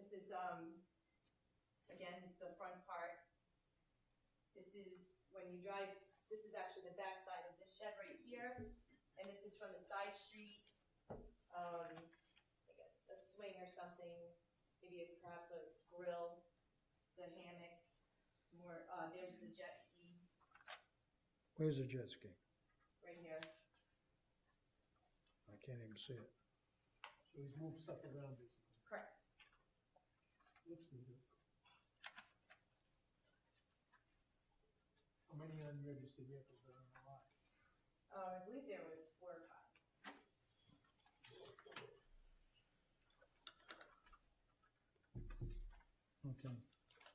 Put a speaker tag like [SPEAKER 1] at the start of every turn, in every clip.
[SPEAKER 1] um, This is when you drive, this is actually the backside of this shed right here, and this is from the side street. Um, like a, a swing or something, maybe a- perhaps a grill, the hammock, it's more, uh, there's the jet ski
[SPEAKER 2] Where's the jet ski?
[SPEAKER 1] right here.
[SPEAKER 2] I can't even see it.
[SPEAKER 3] So he's moved stuff around basically.
[SPEAKER 1] Correct.
[SPEAKER 3] Looks neat. How many unregistered vehicles are on the lot?
[SPEAKER 1] Uh, I believe there was four or five.
[SPEAKER 2] Okay.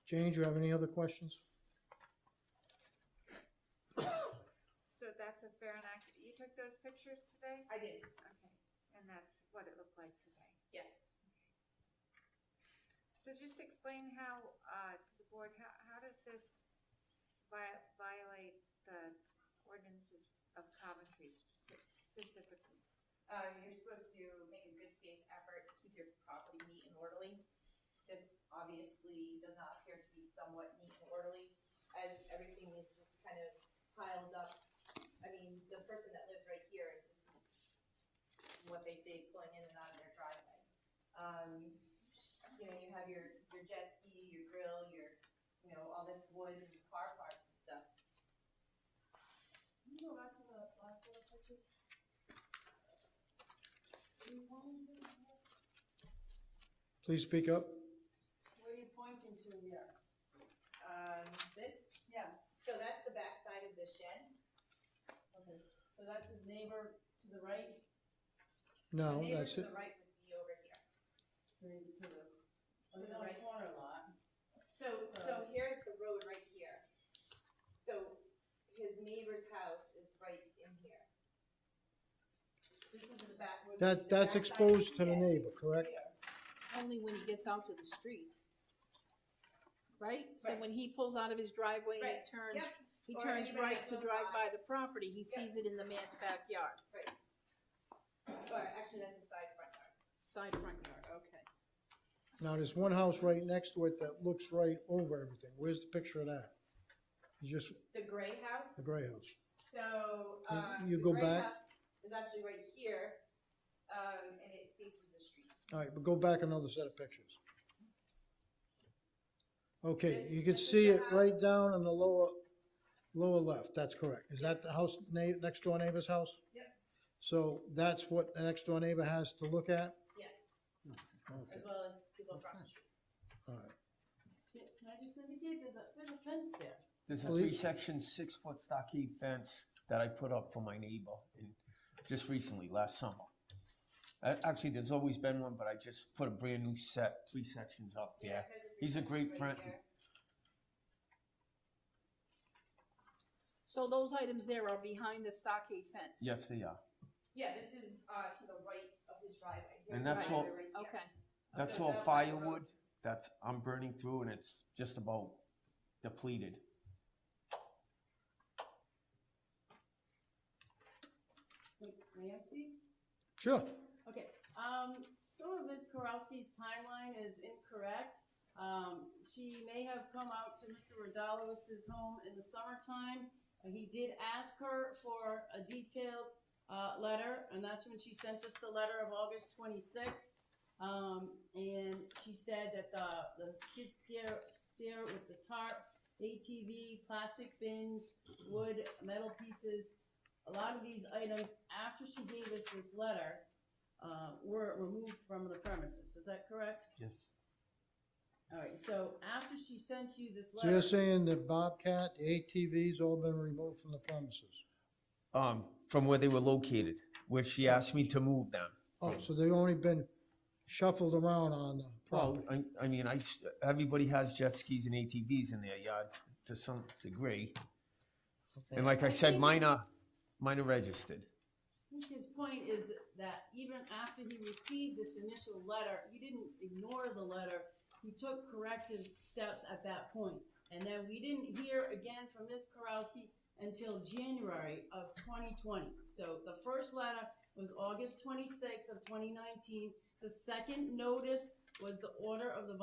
[SPEAKER 2] Jane, do you have any other questions?
[SPEAKER 4] So that's a fair and accurate, you took those pictures today?
[SPEAKER 1] I did,
[SPEAKER 4] Okay, and that's what it looked like today.
[SPEAKER 1] yes.
[SPEAKER 4] So just explain how, uh, to the board, how, how does this vi- violate the ordinances of Coventry spe- specifically?
[SPEAKER 1] Uh, you're supposed to make a good faith effort to keep your property neat and orderly. This obviously does not appear to be somewhat neat and orderly, as everything is just kind of piled up. I mean, the person that lives right here, this is what they say, pulling in and out of their driveway. Um, you know, you have your, your jet ski, your grill, your, you know, all this wood and car parts and stuff.
[SPEAKER 5] Can you go back to the last little pictures? What are you pointing to?
[SPEAKER 2] Please speak up.
[SPEAKER 5] What are you pointing to here?
[SPEAKER 1] Um, this,
[SPEAKER 5] Yes,
[SPEAKER 1] so that's the backside of the shed.
[SPEAKER 5] okay, so that's his neighbor to the right,
[SPEAKER 2] No,
[SPEAKER 1] The neighbor
[SPEAKER 2] that's
[SPEAKER 1] to the
[SPEAKER 2] it.
[SPEAKER 1] right would be over here.
[SPEAKER 5] to to the,
[SPEAKER 1] To the
[SPEAKER 5] another
[SPEAKER 1] right.
[SPEAKER 5] corner lot.
[SPEAKER 1] So, so
[SPEAKER 5] So-
[SPEAKER 1] here's the road right here. So his neighbor's house is right in here. This is the back. would be the
[SPEAKER 2] That,
[SPEAKER 1] backside
[SPEAKER 2] that's
[SPEAKER 1] of
[SPEAKER 2] exposed to the
[SPEAKER 1] shed.
[SPEAKER 2] neighbor, correct?
[SPEAKER 5] Here.
[SPEAKER 6] only when he gets out to the street. Right? So
[SPEAKER 1] Right.
[SPEAKER 6] when he pulls out of his driveway and
[SPEAKER 1] Right.
[SPEAKER 6] he turns,
[SPEAKER 1] Yep,
[SPEAKER 6] he
[SPEAKER 1] Or
[SPEAKER 6] turns
[SPEAKER 1] anybody
[SPEAKER 6] right
[SPEAKER 1] that
[SPEAKER 6] to
[SPEAKER 1] goes
[SPEAKER 6] drive
[SPEAKER 1] by.
[SPEAKER 6] by the property, he sees it in the man's backyard,
[SPEAKER 1] or actually that's the side front yard.
[SPEAKER 6] side front yard, okay.
[SPEAKER 2] Now, there's one house right next to it that looks right over everything. Where's the picture of that? It's just
[SPEAKER 1] The gray house.
[SPEAKER 2] the gray house.
[SPEAKER 1] So,
[SPEAKER 2] Can
[SPEAKER 1] um,
[SPEAKER 2] you
[SPEAKER 1] the
[SPEAKER 2] go
[SPEAKER 1] gray
[SPEAKER 2] back?
[SPEAKER 1] house is actually right here, um, and it faces the street.
[SPEAKER 2] All right, but go back another set of pictures. Okay,
[SPEAKER 1] This-
[SPEAKER 2] you can
[SPEAKER 1] this is
[SPEAKER 2] see
[SPEAKER 1] the
[SPEAKER 2] it right
[SPEAKER 1] house.
[SPEAKER 2] down in the lower, lower left, that's correct. Is that the house, na- next door neighbor's house?
[SPEAKER 1] Yep.
[SPEAKER 2] So that's what the next door neighbor has to look at?
[SPEAKER 1] Yes,
[SPEAKER 2] Okay,
[SPEAKER 1] as well as people across the street.
[SPEAKER 2] all right.
[SPEAKER 5] Can can I just indicate, there's a, there's a fence there.
[SPEAKER 7] There's a
[SPEAKER 2] Well, you-
[SPEAKER 7] three-section, six-foot stockade fence that I put up for my neighbor in, just recently, last summer. A- Actually, there's always been one, but I just put a brand-new set, three sections up there.
[SPEAKER 1] there's a
[SPEAKER 7] He's a great
[SPEAKER 1] right
[SPEAKER 7] friend.
[SPEAKER 1] there.
[SPEAKER 6] So those items there are behind the stockade fence?
[SPEAKER 7] Yes, they are.
[SPEAKER 1] Yeah, this is, uh, to the right of his driveway. Here's
[SPEAKER 7] And that's
[SPEAKER 1] the driveway
[SPEAKER 7] all-
[SPEAKER 1] right here.
[SPEAKER 6] Okay,
[SPEAKER 7] That's
[SPEAKER 1] So
[SPEAKER 7] all
[SPEAKER 1] is that by the road?
[SPEAKER 7] firewood. That's, I'm burning through and it's just about depleted.
[SPEAKER 5] Wait, may I speak?
[SPEAKER 2] Sure,
[SPEAKER 5] Okay, um, some of Ms. Korowski's timeline is incorrect. Um, she may have come out to Mr. Rodalowitz's home in the summertime. and He did ask her for a detailed, uh, letter, and that's when she sent us the letter of August twenty-sixth. Um, and she said that the, the skid steer, steer with the tarp, ATV, plastic bins, wood, metal pieces, a lot of these items, after she gave us this letter, uh, were removed from the premises. Is that correct?
[SPEAKER 7] Yes.
[SPEAKER 5] All right, so after she sent you this
[SPEAKER 2] so you're
[SPEAKER 5] letter,
[SPEAKER 2] saying that Bobcat, ATV's all been removed from the premises?
[SPEAKER 7] Um, from where they were located, where she asked me to move them.
[SPEAKER 2] Oh, so they've only been shuffled around on the
[SPEAKER 7] Well,
[SPEAKER 2] property?
[SPEAKER 7] I, I mean, I, s- everybody has jet skis and ATVs in their yard to some degree. And like I said, mine are, mine are registered.
[SPEAKER 5] I think his point is that even after he received this initial letter, you didn't ignore the letter. You took corrective steps at that point. And then we didn't hear again from Ms. Karowski until January of 2020. So the first letter was August 26th of 2019. The second notice was the order of the